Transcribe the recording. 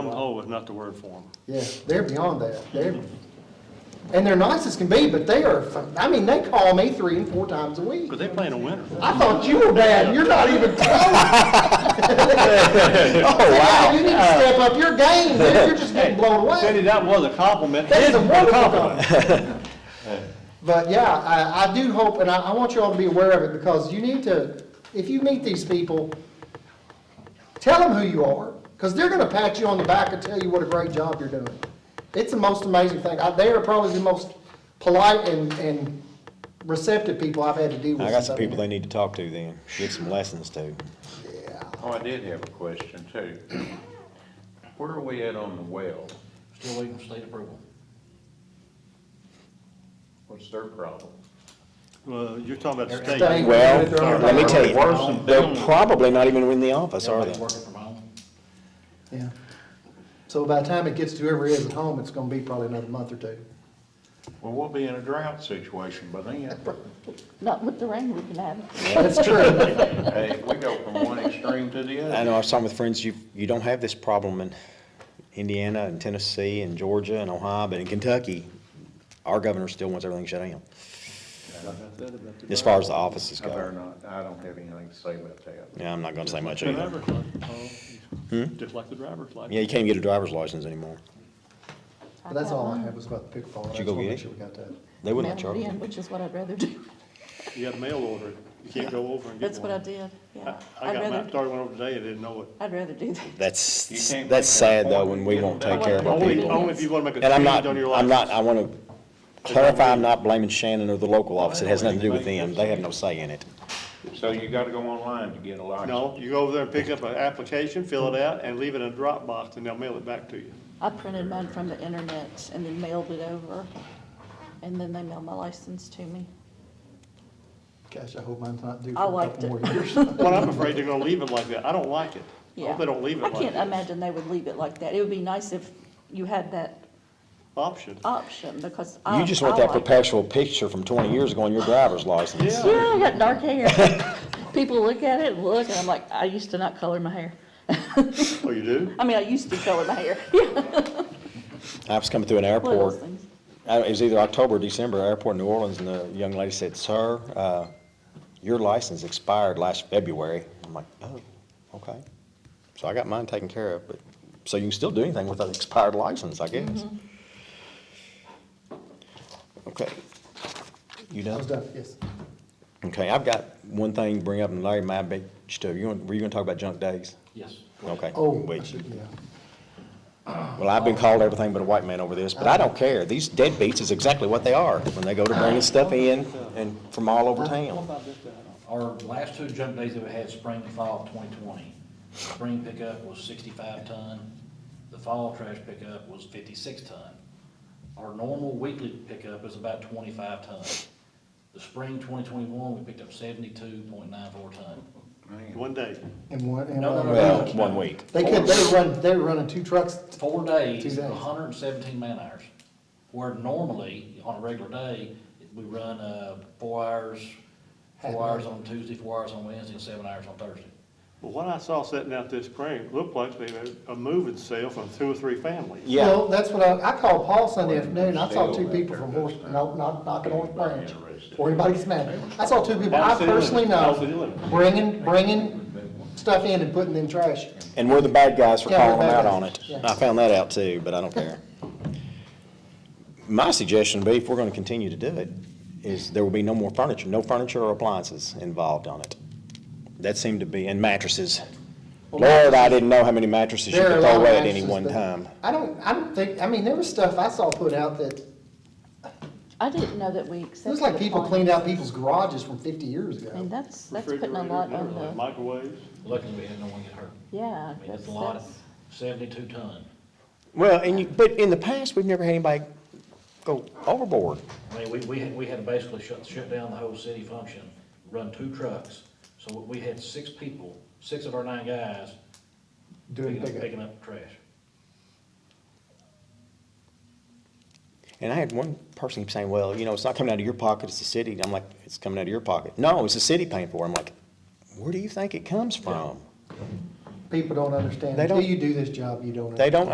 hole is Oh, not the word for them. Yeah, they're beyond that. They're, and they're nice as can be, but they are, fu- I mean, they call me three and four times a week. Because they play in the winter. I thought you were bad, and you're not even close. Oh, You need to step up your game, man. you're just getting blown Cindy, away. that was a compliment. That is a It wonderful compliment. But yeah, I, I do hope, and I, I want you all to be aware of it, because you need to, if you meet these people, tell them who you are, because they're gonna pat you on the back and tell you what a great job you're doing. It's the most amazing thing. I- They are probably the most polite and, and receptive people I've had to deal with. I got some since I've people been they need to talk to then, get some lessons to. Oh, I did have a question too. Where are we at on the well? Still waiting for state approval. What's their problem? Well, you're talking about here. state. Staying- Well, they're- let me tell Worse than you, they're probably not even in the office, are Everybody's they? Working from home. Yeah. So by the time it gets to whoever is at home, it's gonna be probably another month or two. Well, we'll be in a drought situation by then. Not with the rain we've been having. That's true. Hey, we go from one extreme to the I other. know, I was talking with friends, you, you don't have this problem in Indiana and Tennessee and Georgia and Ohio, but in Kentucky, our governor still wants everything shut down, as far as the offices I better go. not, I don't have anything to say about that. Yeah, I'm not gonna say much The either. driver's license, oh, Just like the driver's license. Yeah, you can't get a driver's license anymore. But that's all I had was about the pickleball. Did you go I just wanna get it? make sure we got They wouldn't let you. Mailed it in, over. Which is what I'd rather do. You got to mail order it. You can't go over and get That's one. what I did, yeah. I I I'd got mine, rather, started one over today, I didn't know it. I'd rather do that. You That's, can't that's make that sad though, point. when we You won't don't take care of our Only, people. only if you want to make a And I'm change not, on your license. I'm not, I wanna clarify, I'm not blaming Shannon or the local office, it has nothing to do with them, they have no say in it. So you gotta go online to get a license. No, you go over there and pick up an application, fill it out, and leave it in a Dropbox, and they'll mail it back to you. I printed mine from the internet and then mailed it over, and then they mailed my license to me. that. Gosh, I hope mine's not due I for a liked couple more it. years. Well, I'm afraid they're gonna leave it like that. I don't like it. I Yeah. hope they don't leave it I like can't that. imagine they would leave it like that. It would be nice if you had that Option. option, because I. You just Oh, I want that like- perpetual picture from twenty years ago on your driver's license. Yeah. Yeah, I got dark hair. People look at it, and look, and I'm like, I used to not color my hair. Oh, you do? I mean, I used to color my hair, yeah. I was coming through an one of those airport, things. I- it was either October or December, airport in New Orleans, and the young lady said, sir, uh, your license expired last February. I'm like, oh, okay. So I got mine taken care of, but, so you can still do anything with an expired license, I guess. Okay. You I done? was done, yes. Okay, I've got one thing to bring up, and Larry, my big, stuff. you, want- were you gonna talk about junk days? Yes. Okay. Oh, I wait. should, yeah. Well, I've been called everything but a white man over this, but I don't care. These deadbeats is exactly what they are when they go to bringing stuff in and from all over town. Our last two junk days that we had, spring and fall of twenty twenty, spring pickup was sixty-five ton, the fall trash pickup was fifty-six ton. Our normal weekly pickup is about twenty-five ton. The spring twenty twenty-one, we picked up seventy-two point nine four ton. One day. And one, and No, no, one- no. Well, one week. They could, they were running, they were running two trucks. Four Two days, days. hundred and seventeen man hours, where normally, on a regular day, we run, uh, four hours, Half an four hour. hours on Tuesday, four hours on Wednesday, and seven hours on Thursday. But what I saw sitting out this spring, looked like they had a moving sale from two or three families. Yeah, Well, that's what I, I called Paul Sunday afternoon, I saw two people from Horse, no, not, not the North Branch, before anybody gets mad. I saw two people I Down the city personally limit, down know, the city limit. bringing, bringing stuff in and putting in trash. and we're the bad guys for Yeah, we're calling them bad out on guys. it. Yeah. I found that out too, but I don't care. My suggestion would be, if we're gonna continue to do it, is there will be no more furniture, no furniture or appliances involved on it. That seemed to be, and mattresses. Lord, I didn't know how many mattresses you There are could a lot throw of away at any mattresses, one but time. I don't, I don't think, I mean, there was stuff I saw put out that, it I didn't know that we accepted. was like people appliances. cleaned out people's garages from fifty years I mean, ago. that's, that's putting a Refrigerators, lot on everything, the, Microwaves. Luckily, we had no one get hurt. yeah, I mean, that's, it's a lot, that's, seventy-two ton. Well, and you, but in the past, we've never had anybody go overboard. I mean, we, we, had- we had to basically shut, shut down the whole city function, run two trucks. So we had six people, six of our nine guys Doing picking up, pickup. picking up trash. And I had one person keep saying, well, you know, it's not coming out of your pocket, it's the city. And I'm like, it's coming out of your pocket. No, it's the city paying for it. I'm like, where do you think it comes from? People don't understand, They don't- until you do this job, you don't understand. They don't